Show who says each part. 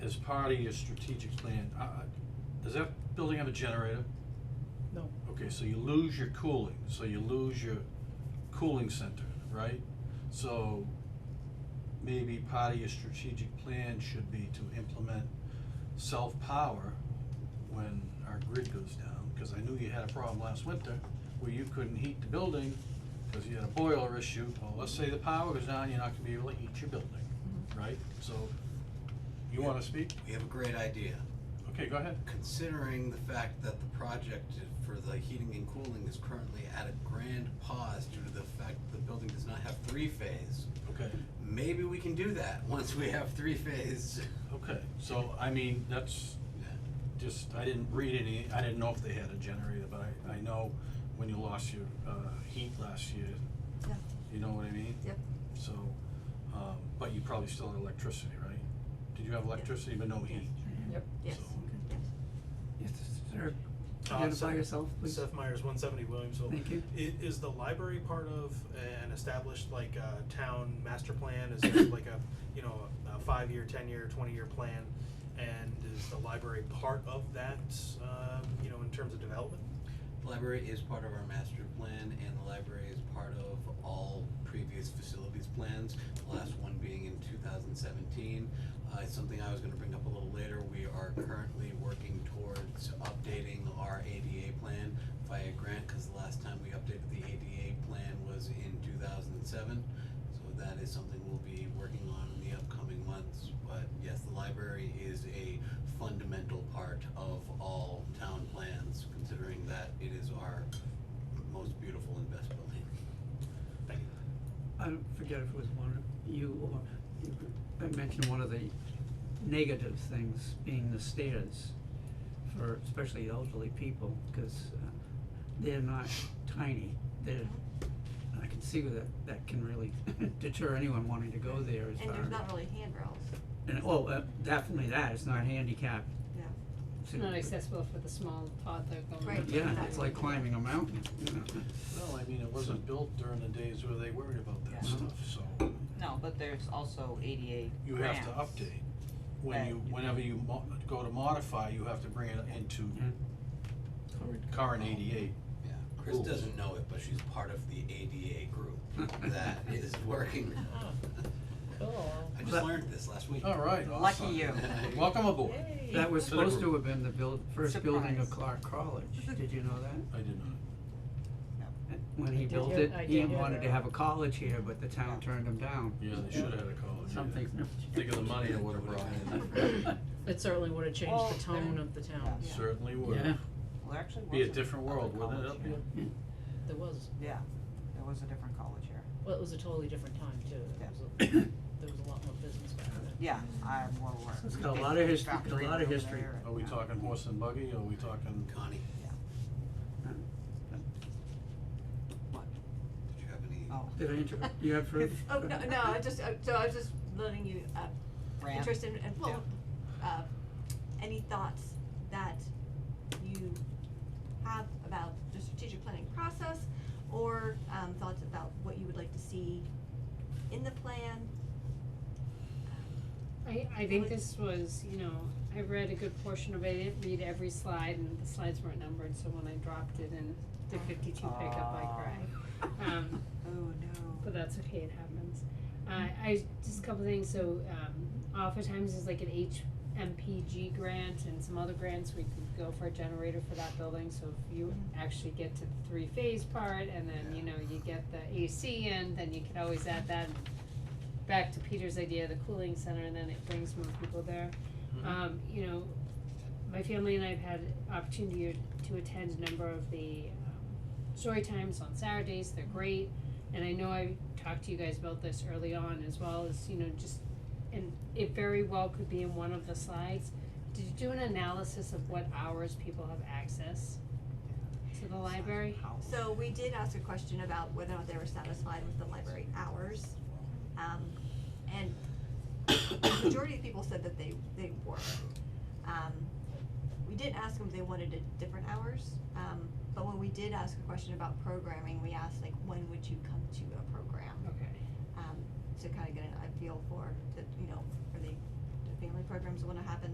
Speaker 1: as part of your strategic plan, uh, uh, does that building have a generator?
Speaker 2: No,
Speaker 1: Okay, so you lose your cooling, so you lose your cooling center, right? So maybe part of your strategic plan should be to implement self-power when our grid goes down, cause I knew you had a problem last winter where you couldn't heat the building because you had a boiler issue. Well, let's say the power goes down, you're not gonna be able to heat your building, right? So, you wanna speak?
Speaker 3: We have a great idea.
Speaker 1: Okay, go ahead.
Speaker 3: Considering the fact that the project for the heating and cooling is currently at a grand pause due to the fact that the building does not have three phase,
Speaker 1: Okay,
Speaker 3: maybe we can do that once we have three phase.
Speaker 1: okay. So, I mean, that's, just, I didn't read any, I didn't know if they had a generator, but I, I know when you lost your, uh, heat last year,
Speaker 4: Yeah,
Speaker 1: you know what I mean?
Speaker 4: Yep.
Speaker 1: So, um, but you probably still had electricity, right? Did you have electricity but no heat?
Speaker 2: yep.
Speaker 4: yes,
Speaker 1: So-
Speaker 4: yes.
Speaker 5: Yes, sir.
Speaker 6: Uh,
Speaker 5: Identify
Speaker 6: Seth-
Speaker 5: yourself, please.
Speaker 6: Seth Myers, one seventy Williamsville.
Speaker 5: Thank you.
Speaker 6: I- Is the library part of an established like uh town master plan? Is there like a, you know, a five-year, ten-year, twenty-year plan? And is the library part of that, um, you know, in terms of development?
Speaker 3: The Library is part of our master plan and the library is part of all previous facilities plans, the last one being in two thousand seventeen. Uh, it's something I was gonna bring up a little later, we are currently working towards updating our ADA plan via grant, cause the last time we updated the ADA plan was in two thousand and seven. So that is something we'll be working on in the upcoming months, but yes, the library is a fundamental part of all town plans, considering that it is our most beautiful and best building.
Speaker 6: Thank you.
Speaker 5: I don't forget if it was one of you or you I mentioned one of the negative things being the stairs for especially elderly people, cause uh, they're not tiny, they're, and I can see that that can really deter anyone wanting to go there as
Speaker 4: And
Speaker 5: far.
Speaker 4: there's not really handrails,
Speaker 5: And, oh, uh, definitely that, it's not handicapped.
Speaker 4: Yeah.
Speaker 7: It's not accessible for the small toddler going.
Speaker 4: Right.
Speaker 5: Yeah, it's like climbing a mountain, you know.
Speaker 1: Well, I mean, it wasn't built during the days where they worried about that
Speaker 5: Yeah.
Speaker 1: stuff, so
Speaker 8: No, but there's also ADA
Speaker 1: you have to
Speaker 8: grants.
Speaker 1: update. When
Speaker 8: Right.
Speaker 1: you, whenever you mo- go to modify, you have to bring it into
Speaker 5: Yeah.
Speaker 1: current eighty-eight.
Speaker 3: Yeah, Chris
Speaker 1: Cool.
Speaker 3: doesn't know it, but she's part of the ADA group that is working.
Speaker 7: Cool.
Speaker 3: I just learned this last week.
Speaker 1: All right,
Speaker 8: Lucky
Speaker 1: awesome.
Speaker 8: you.
Speaker 1: Welcome aboard.
Speaker 5: That was
Speaker 1: To the
Speaker 5: supposed to
Speaker 1: group.
Speaker 5: have been the build, first building of
Speaker 8: Surprise.
Speaker 5: Clark College, did you know that?
Speaker 1: I did not.
Speaker 5: When he
Speaker 7: did
Speaker 5: built
Speaker 7: hear-
Speaker 5: it,
Speaker 7: I
Speaker 5: he
Speaker 7: did hear
Speaker 5: wanted to
Speaker 7: that.
Speaker 5: have a college here, but the town turned him down.
Speaker 1: Yeah, they should have had a college. yeah.
Speaker 5: Something.
Speaker 1: Think of the money it would have brought in.
Speaker 7: It certainly would have
Speaker 8: Well,
Speaker 7: changed the tone of the town.
Speaker 8: Yeah.
Speaker 1: Certainly would.
Speaker 5: Yeah.
Speaker 8: Well, there actually was.
Speaker 1: Be a
Speaker 8: a-
Speaker 1: different
Speaker 8: other
Speaker 1: world, wouldn't it,
Speaker 8: college
Speaker 1: up
Speaker 8: here.
Speaker 1: here?
Speaker 7: There was,
Speaker 8: Yeah, there was a different college here.
Speaker 7: well, it was a totally different time too. There
Speaker 8: Yeah.
Speaker 7: was a, there was a lot more business back then.
Speaker 8: Yeah, I'm well aware.
Speaker 5: It's got a lot of history- got a
Speaker 8: Factory
Speaker 5: lot of
Speaker 8: over
Speaker 5: history.
Speaker 8: there and-
Speaker 1: Are we
Speaker 8: yeah.
Speaker 1: talking horse and buggy, or are we talking?
Speaker 3: Connie, did you have any?
Speaker 8: Oh.
Speaker 5: Did I interrupt? You have heard?
Speaker 4: Oh, no, no, I just, uh, so I was just letting you, uh,
Speaker 8: Rant.
Speaker 4: interest in, and, well, uh, any thoughts that you have about the strategic planning process? Or, um, thoughts about what you would like to see in the plan?
Speaker 7: I, I think this was, you know, I read a good portion of it, I didn't read every slide, and the slides weren't numbered, so when I dropped it in the fifty-two pickup, I cried.
Speaker 5: Ah.
Speaker 7: Um,
Speaker 4: Oh, no.
Speaker 7: but that's okay, it happens. Uh, I, just a couple things, so, um, oftentimes there's like an HMPG grant and some other grants, we could go for a generator for that building, so if you actually get to the three-phase part, and then, you know, you get the AC in, then you could always add that back to Peter's idea, the cooling center, and then it brings more people there.
Speaker 1: Mhm.
Speaker 7: Um, you know, my family and I have had opportunity to attend a number of the um, story times on Saturdays. They're great, and I know I talked to you guys about this early on as well as you know just and it very well could be in one of the slides. Did you do an analysis of what hours people have access to the library?
Speaker 4: So we did ask a question about whether or not they were satisfied with the library hours. Um, and the majority of people said that they, they were. Um, we didn't ask them if they wanted it different hours, um, but when we did ask a question about programming, we asked like, when would you come to a program?
Speaker 7: Okay.
Speaker 4: Um, to kind of get an, a feel for the, you know, are they, family programs wanna happen,